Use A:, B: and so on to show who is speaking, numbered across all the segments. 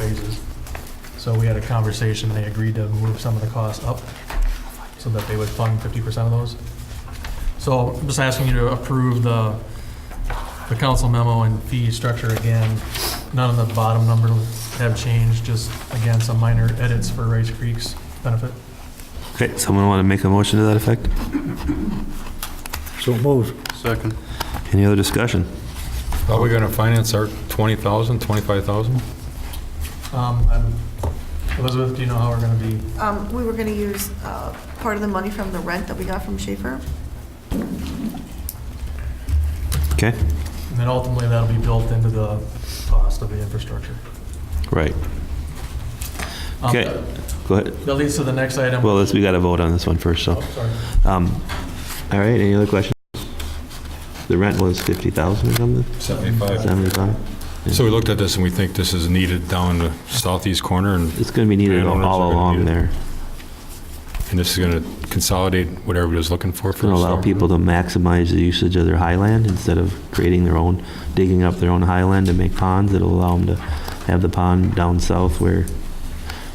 A: raises. So we had a conversation, they agreed to move some of the costs up so that they would fund fifty percent of those. So I'm just asking you to approve the, the council memo and fee structure again. None of the bottom number have changed, just again, some minor edits for Rice Creek's benefit.
B: Okay, someone want to make a motion to that effect?
C: So moved.
D: Second.
B: Any other discussion?
E: Are we going to finance our 20,000, 25,000?
A: Um, I'm- Elizabeth, do you know how we're going to be?
F: Um, We were going to use uh, part of the money from the rent that we got from Schaefer.
B: Okay,
A: And then ultimately, that'll be built into the cost of the infrastructure.
B: right.
A: Um,
B: Okay, go ahead.
A: That leads to the next item.
B: Well, let's, we got to vote on this one first, so.
A: Oh, sorry.
B: Um, All right, any other questions? The rent was 50,000 or something,
E: 75.
B: 75?
E: So we looked at this and we think this is needed down the southeast corner and
B: It's going to be needed all
E: Landowners are
B: all
E: gonna
B: along
E: need it.
B: there.
E: and this is going to consolidate what everybody's looking for.
B: It's going to allow people to maximize the usage of their highland instead of creating their own, digging up their own highland to make ponds. It'll allow them to have the pond down south where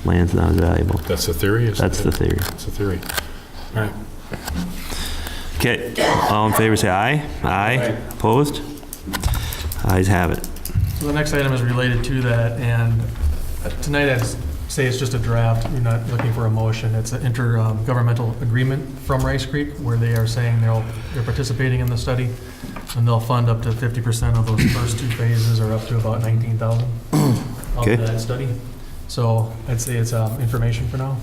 B: land's not as valuable.
E: That's the theory, isn't it?
B: That's the theory.
E: That's the theory. All right.
B: Okay, all in favor, say aye. Aye. Opposed? Ayes have it.
A: So the next item is related to that, and tonight I'd say it's just a draft, we're not looking for a motion. It's an intergovernmental agreement from Rice Creek where they are saying they'll, they're participating in the study, and they'll fund up to 50% of those first two phases, or up to about 19,000 of
B: Okay.
A: that study. So I'd say it's um, information for now.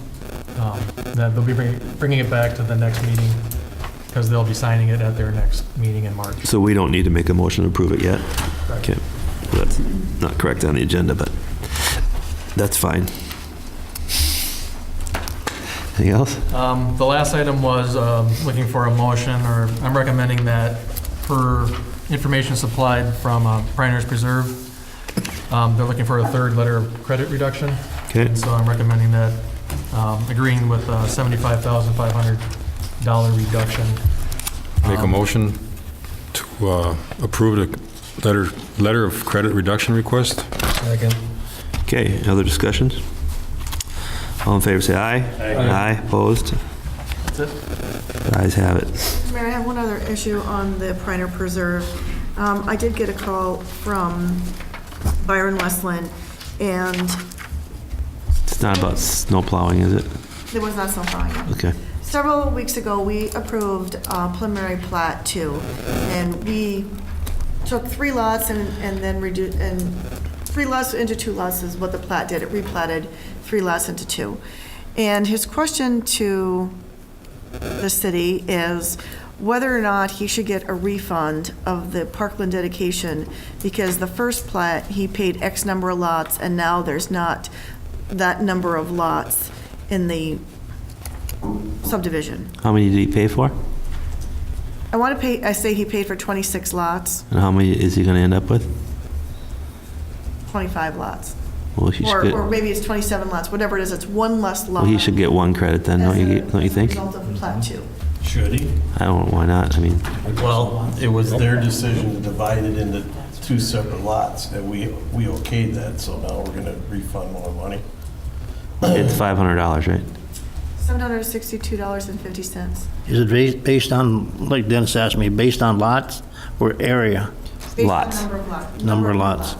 A: Um, That they'll be bringing- bringing it back to the next meeting, because they'll be signing it at their next meeting in March.
B: So we don't need to make a motion to approve it yet?
A: Correct.
B: Okay, that's not correct on the agenda, but that's fine. Anything else?
A: Um, The last item was um, looking for a motion, or I'm recommending that per information supplied from uh, Priner's Preserve, um, they're looking for a third letter of credit reduction,
B: Okay,
A: and so I'm recommending that, um, agreeing with a $75,500 reduction.
E: Make a
A: Um,
E: motion to uh, approve the letter, letter of credit reduction request?
A: Second.
B: okay, other discussions? All in favor, say aye. Aye. opposed?
A: That's it.
B: Ayes have it.
F: Mayor, I have one other issue on the Priner Preserve. Um, I did get a call from Byron Westland, and
B: It's not about snow plowing, is it?
F: there was not snow plowing.
B: Okay,
F: Several weeks ago, we approved uh, preliminary plat two, and we took three lots and, and then reduced, and three lots into two lots is what the plat did. It replatted three lots into two. And his question to the city is whether or not he should get a refund of the Parkland dedication, because the first plat, he paid X number of lots, and now there's not that number of lots in the subdivision.
B: how many did he pay for?
F: I want to pay, I say he paid for 26 lots,
B: And how many is he gonna end up with?
F: 25 lots.
B: Well, he should
F: Or, or
B: get,
F: maybe it's 27 lots, whatever it is, it's one less lot.
B: well, he should get one credit then, don't you, don't you think?
F: As a result of plat two.
G: Should he?
B: I don't, why not? I mean,
G: Well, it was their decision to divide it into two separate lots, and we, we okayed that, so now we're gonna refund more money.
B: it's five hundred dollars, right?
F: $762.50.
C: Is it ba- based on, like Dennis asked me, based on lots or area?
F: Based on
B: Lots.
F: Number of lots.
C: Number of lots.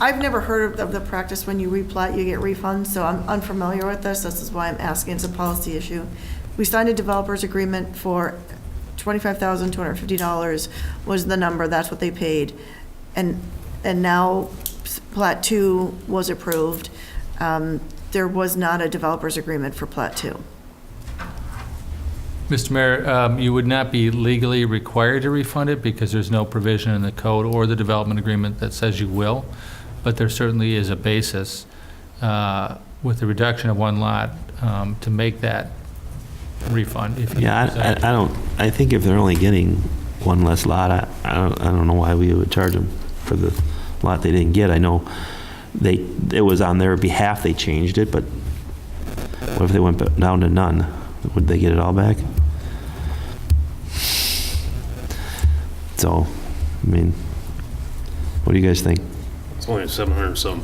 F: I've never heard of- of the practice when you replat, you get refunds, so I'm unfamiliar with this. This is why I'm asking. It's a policy issue. We signed a developer's agreement for $25,250 was the number. That's what they paid. And, and now plat two was approved. Um, There was not a developer's agreement for plat two.
H: Mr. Mayor, um, you would not be legally required to refund it because there's no provision in the code or the development agreement that says you will, but there certainly is a basis uh, with the reduction of one lot um, to make that refund if you
B: Yeah, I, I
H: desire.
B: I don't, I think if they're only getting one less lot, I, I don't, I don't know why we would charge them for the lot they didn't get. I know they, it was on their behalf they changed it, but what if they went ba- down to none? Would they get it all back? So, I mean, what do you guys think?
G: It's only 700 and some